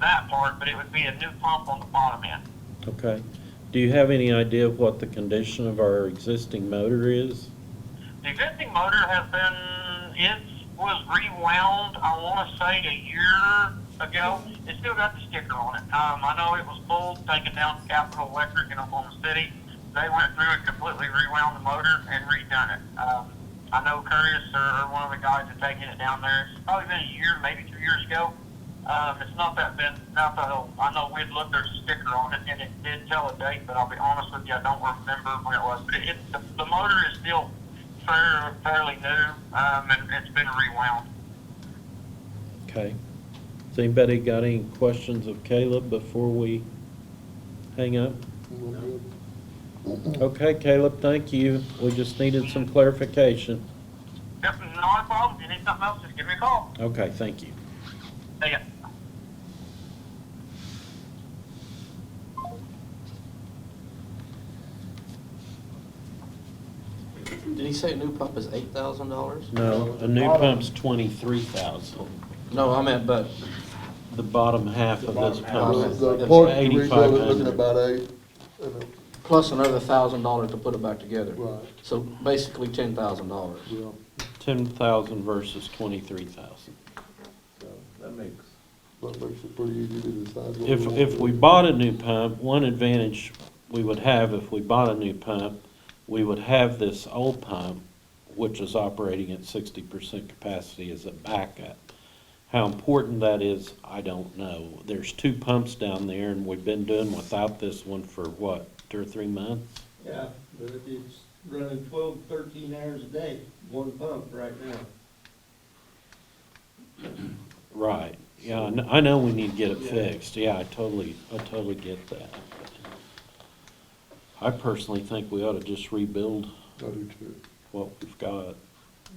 that part, but it would be a new pump on the bottom end. Okay. Do you have any idea of what the condition of our existing motor is? The existing motor has been, it was rewound, I want to say a year ago. It still got the sticker on it. Um, I know it was pulled, taken down to Capital Electric in Oklahoma City. They went through and completely rewound the motor and redone it. Um, I know Curtis or one of the guys that taken it down there. It's probably been a year, maybe two years ago. Um, it's not that been, not that old. I know we'd looked, there's a sticker on it, and it did tell a date, but I'll be honest with you, I don't remember when it was. But it, it the, the motor is still fair, fairly new, um, and it's been rewound. Okay. Has anybody got any questions of Caleb before we hang up? Okay, Caleb, thank you. We just needed some clarification. Yep, not a problem. If you need something else, just give me a call. Okay, thank you. See ya. Did he say a new pump is eight thousand dollars? No, a new pump's twenty-three thousand. No, I meant, but The bottom half of this half. pump. The park and rebuild is 8,500. looking about eight, and, uh, plus another thousand dollars to put it back together. Right. So basically ten thousand dollars. yeah, Ten thousand versus twenty-three thousand. so that makes. That makes it pretty easy to decide. what If, want if to we do. bought a new pump, one advantage we would have if we bought a new pump, we would have this old pump, which is operating at sixty percent capacity as a backup. How important that is, I don't know. There's two pumps down there and we've been doing without this one for what, two or three months? Yeah, but if it's running twelve, thirteen hours a day, one pump right now. Right, yeah, I kn- I know we need to get it fixed, yeah, I totally, I totally get that. I personally think we ought to just rebuild I do too. what we've got.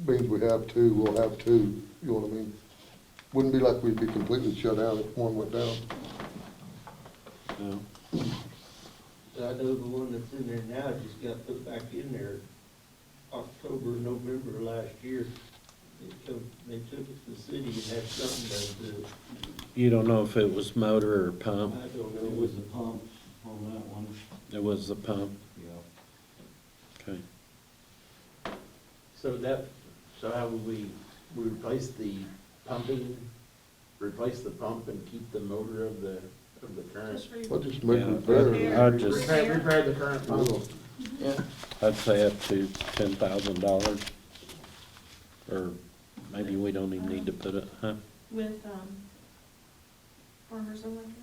Means we have two, we'll have two, you know what I mean? Wouldn't be like we'd be completely shut out if one went down. you know? I know the one that's in there now just got put back in there October, November last year. They took, they took it to the city and had something done to it. You don't know if it was motor or I Uh, pump? don't It know. was the pump on that one. It was the pump, Yeah. okay. So that, so how would we, we replace the pumping, replace the pump and keep the motor of the, of the current? Just read I just make Yeah. it better. Yeah. I'd just, Repair, repair the current pump. Yeah. I'd say up to ten thousand dollars, or maybe we don't even need to put it, huh? with, um, Farmers Electric.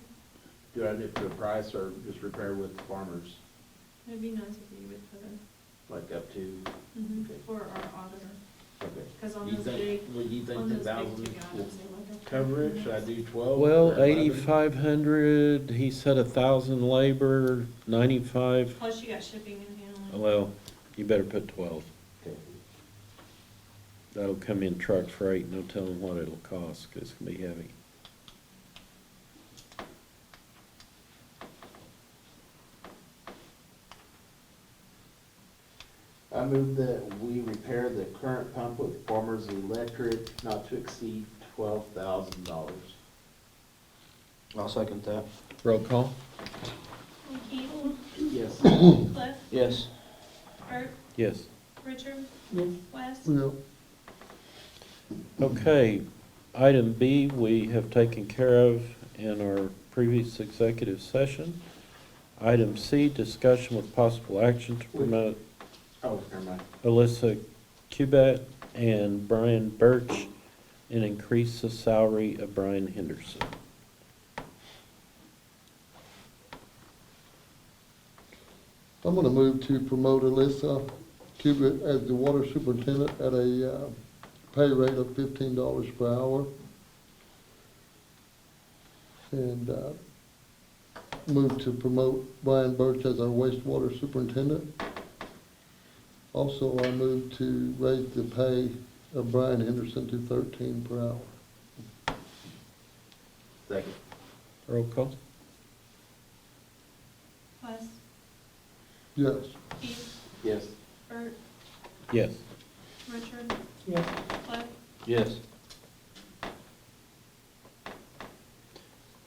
Do I do it for a price or just repair with farmers, It'd be nice if you would put a, like up to, Okay. for our auditor, okay. because mm-hmm, on You those think, big, would you think on the those big thousand two will items, they look up. cover it? Should I do twelve? or Well, 11? eighty-five hundred, he said a thousand labor, ninety-five, Plus you got shipping and handling. well, you better put twelve. Okay. That'll come in truck freight, no telling what it'll cost, 'cause it's gonna be heavy. I move that we repair the current pump with farmers electric not to exceed twelve thousand dollars. I'll second that. Roll call? Keith, Yes. Cliff, Yes. Bert, Yes. Richard, West. Yeah, Okay, item B, we have taken care of in our previous executive session. Item C, discussion with possible action to promote Oh, never mind. Alyssa Cubett and Brian Birch and increase the salary of Brian Henderson. I'm gonna move to promote Alyssa Cubitt as the water superintendent at a, uh, pay rate of fifteen dollars per hour. And, uh, move to promote Brian Birch as our wastewater superintendent. Also, I move to raise the pay of Brian Henderson to thirteen per hour. Second. Roll call? West, Yes, Keith, Yes. Bert, Yes. Richard. Cliff, Yes.